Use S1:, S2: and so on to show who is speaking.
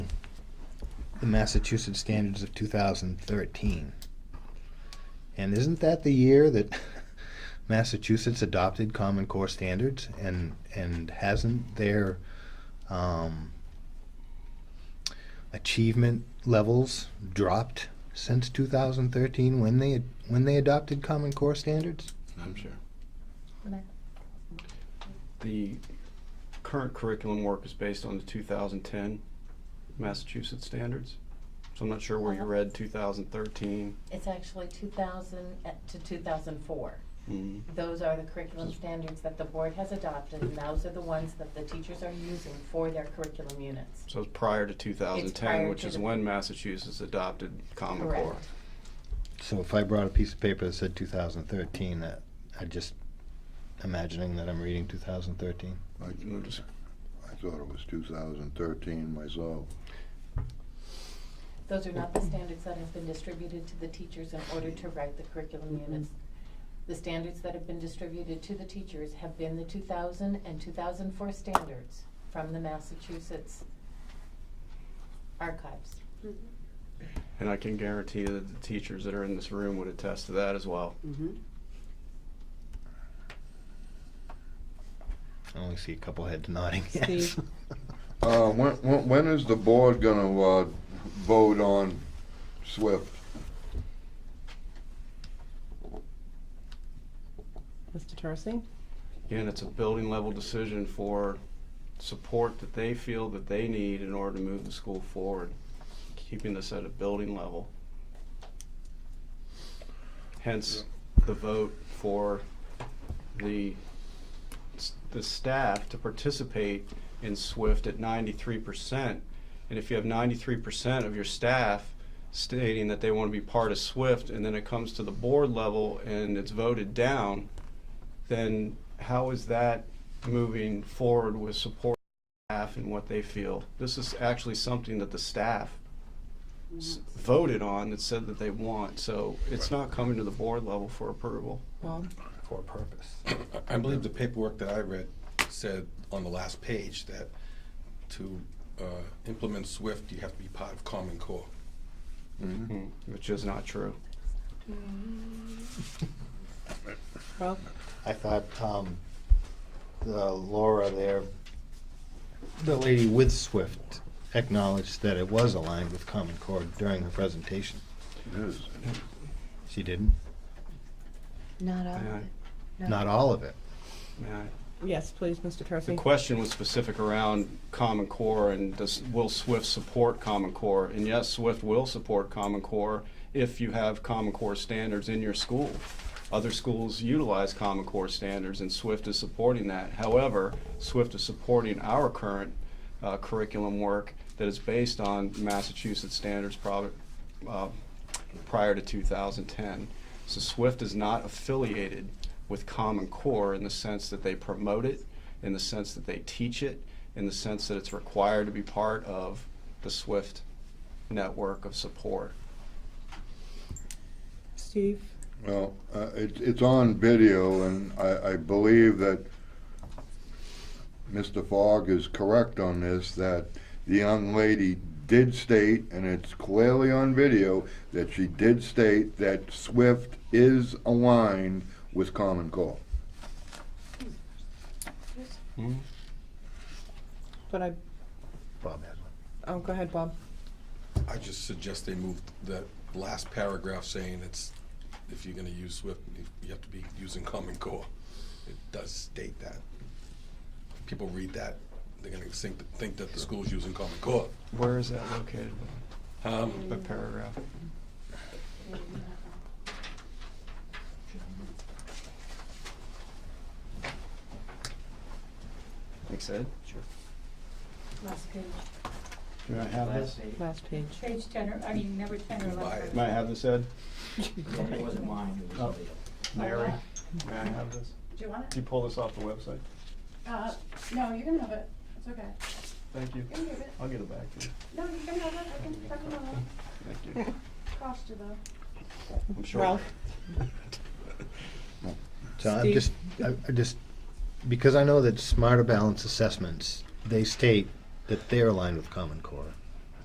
S1: the Massachusetts standards of 2013. And isn't that the year that Massachusetts adopted Common Core standards? And, and hasn't their um, achievement levels dropped since 2013 when they, ad- when they adopted Common Core standards?
S2: I'm sure.
S3: Okay.
S2: The current curriculum work is based on the 2010 Massachusetts standards. So I'm not sure where you
S3: Uh-huh.
S2: read 2013.
S3: It's actually 2000 at- to 2004.
S2: Mm,
S3: Those are the curriculum standards that the board has adopted, and those are the ones that the teachers are using for their curriculum units.
S2: So it's prior to
S3: It's prior
S2: 2010, which
S3: to
S2: is
S3: the-
S2: when Massachusetts adopted Common
S3: Correct.
S2: Core.
S1: So if I brought a piece of paper that said 2013, that I just imagining that I'm reading 2013.
S4: I,
S2: Move to-
S4: I thought it was two thousand thirteen myself.
S3: Those are not the standards that have been distributed to the teachers in order to write the curriculum units. The standards that have been distributed to the teachers have been the 2000 and 2004 standards from the Massachusetts archives.
S2: And I can guarantee that the teachers that are in this room would attest to that as well.
S1: I only see a couple heads nodding. Yes.
S5: Steve.
S4: Uh, when, when, when is the board gonna, uh, vote on SWIFT?
S5: Mr. Tarsi?
S2: Again, it's a building level decision for support that they feel that they need in order to move the school forward, keeping this at a building level. Hence, the vote for the, s- the staff to participate in SWIFT at ninety-three percent. And if you have ninety-three percent of your staff stating that they want to be part of SWIFT, and then it comes to the board level and it's voted down, then how is that moving forward with support staff and what they feel? This is actually something that the staff s-
S6: Mm-hmm.
S2: voted on that said that they want, so it's not coming to the board level for approval.
S5: Bob?
S1: For a purpose.
S7: I believe the paperwork that I read said on the last page that to uh, implement SWIFT, you have to be part of Common Core.
S2: Which is not true.
S5: Rob?
S1: I thought um, the Laura there, the lady with Swift, acknowledged that it was aligned with Common Core during her presentation.
S4: It is.
S1: She didn't?
S6: Not all
S2: Yeah.
S6: of it. No.
S1: Not all of it.
S2: May I-
S5: Yes, please, Mr.
S2: The
S5: Tarsi.
S2: question was specific around Common Core and does, will SWIFT support Common Core? And yes, SWIFT will support Common Core if you have Common Core standards in your school. Other schools utilize Common Core standards and SWIFT is supporting that. However, SWIFT is supporting our current uh, curriculum work that is based on Massachusetts standards prob- uh, prior to 2010. So SWIFT is not affiliated with Common Core in the sense that they promote it, in the sense that they teach it, in the sense that it's required to be part of the SWIFT network of support.
S5: Steve?
S4: Well, uh, it, it's on video, and I, I believe that Mr. Fogg is correct on this, that the young lady did state, and it's clearly on video, that she did state that SWIFT is aligned with Common Core.
S5: But I,
S1: Bob had one.
S5: oh, go ahead, Bob.
S7: I just suggest they move that last paragraph saying it's, if you're gonna use SWIFT, you- you have to be using Common Core. It does state that. People read that, they're gonna think, think that the school's using Common Core.
S2: Where is that located,
S7: Um,
S2: the paragraph? Thanks, Ed. Sure.
S8: Last page.
S2: May I have this?
S5: Last page.
S8: Page ten or, I mean, number ten or
S7: Goodbye.
S8: eleven.
S2: May I have this, Ed?
S9: It wasn't mine, it was somebody else.
S2: Mary, may I have this?
S8: Do you want it?
S2: Can you pull this off the website?
S8: Uh, no, you can have it. It's okay.
S2: Thank you.
S8: You can give it.
S2: I'll get it back to you.
S8: No, you can have it. I can, I can have it.
S2: Thank you.
S8: Cost you though.
S2: I'm sure.
S5: Ralph?
S1: So I'm
S5: Steve?
S1: just, I I just, because I know that Smarter Balance Assessments, they state that they're aligned with Common Core.